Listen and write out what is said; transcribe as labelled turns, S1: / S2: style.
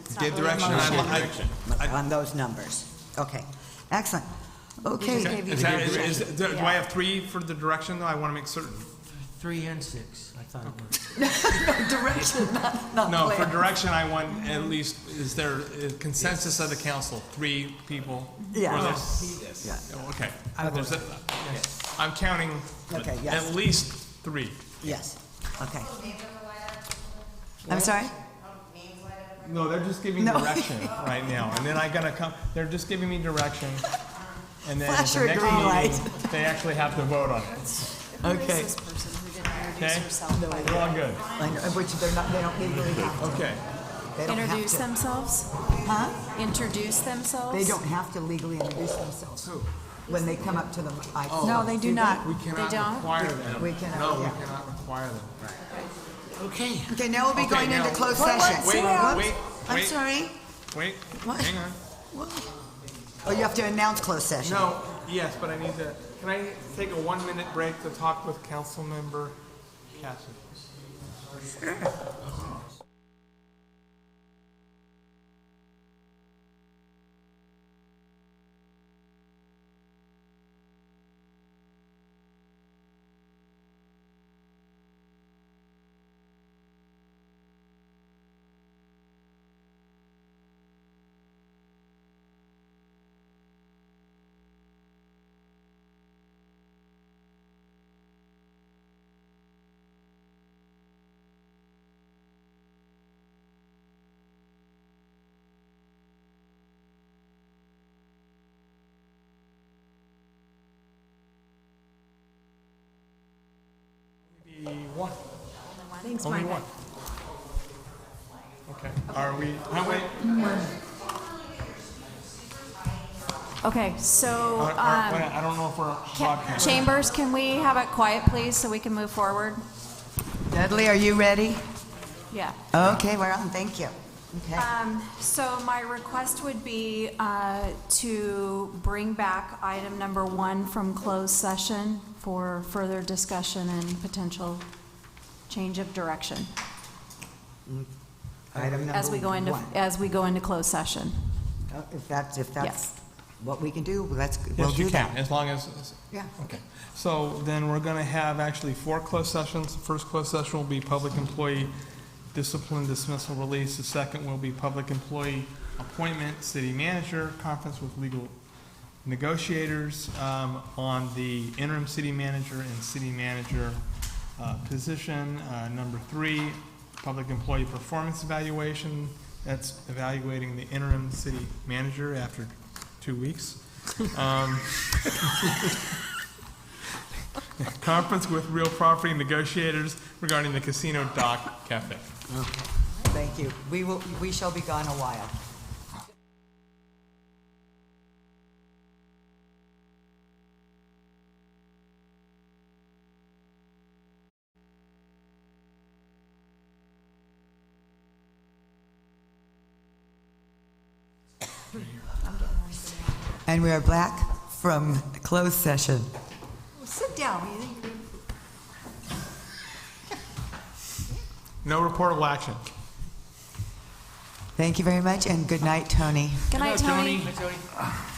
S1: It's not
S2: Gave
S1: really a
S2: direction, I,
S1: motion.
S2: li-
S3: on those numbers. Okay, excellent.
S1: just
S2: I,
S3: Okay,
S1: gave you
S2: is that-
S1: direction.
S2: is- do do
S1: Yeah.
S2: I have three for the direction, though? I want to make certain.
S4: Three and six, I thought it was.
S3: direction, not, not
S2: No, for
S3: plan.
S2: direction, I want at least, is there a consensus of the council, three people? for
S3: Yeah.
S2: this?
S3: Yeah.
S2: Oh, Okay.
S4: I
S2: There's
S4: vote
S2: a- I'm counting
S3: Okay, yes.
S2: at least three.
S3: Yes, okay. I'm sorry?
S2: No, they're just giving
S3: No.
S2: direction right now, and then I gotta come, they're just giving me direction. And then at
S3: Flash
S2: the
S3: your
S2: next
S3: green
S2: meeting, they actually have to vote on it,
S3: Okay.
S1: This person who didn't introduce
S2: okay?
S1: herself.
S2: We're all good,
S3: I know, Which they're not, they don't legally have to.
S2: okay.
S3: They don't have
S1: Introduce
S3: to.
S1: themselves?
S3: Huh?
S1: Introduce themselves?
S3: They don't have to legally introduce themselves. When they come up to the mic.
S1: No, they do
S3: See
S1: not.
S3: that?
S2: We
S1: They
S2: cannot
S1: don't?
S2: require them.
S3: We cannot,
S2: Oh. No, we
S3: yeah.
S2: cannot require them.
S4: Okay,
S3: Okay, now we'll be
S2: Okay,
S3: going into
S2: now-
S3: closed
S1: What-
S3: session.
S1: what's Wait,
S2: that? wait,
S3: I'm
S2: wait.
S3: sorry?
S2: Wait,
S3: What?
S2: hang on.
S3: Oh, you have to announce closed session.
S2: No, yes, but I need to, can I take a one-minute break to talk with council member Cassidy? Maybe one,
S1: Thanks,
S2: only
S1: Margaret.
S2: one. Okay, are we, oh, wait,
S1: Okay, so,
S2: are-
S1: um,
S2: are- wait, I don't know if we're
S1: ca-
S2: broadcasting.
S1: Chambers, can we have it quiet, please, so we can move forward?
S3: Dudley, are you ready?
S1: Yeah.
S3: Okay, we're on, thank you. Okay.
S1: So my request would be uh, to bring back item number one from closed session for further discussion and potential change of direction
S3: Item
S1: as we go
S3: number
S1: into,
S3: one.
S1: as we go into closed session.
S3: Oh, If that's, if
S1: Yes.
S3: that's what we can do, let's, we'll
S2: Yes, you
S3: do
S2: can,
S3: that.
S2: as long as,
S3: Yeah.
S2: Okay, so then we're going to have actually four closed sessions. The first closed session will be public employee discipline dismissal release. The second will be public employee appointment, city manager, conference with legal negotiators um, on the interim city manager and city manager uh, position. Uh, Number three, public employee performance evaluation. That's evaluating the interim city manager after two weeks. Um, conference with real property negotiators regarding the casino dock cafe.
S3: Thank you. We will, we shall be gone a while. And we are back from closed session. Sit down.
S2: No reportable action.
S3: Thank you very much, and good night, Tony.
S1: Good night, Tony.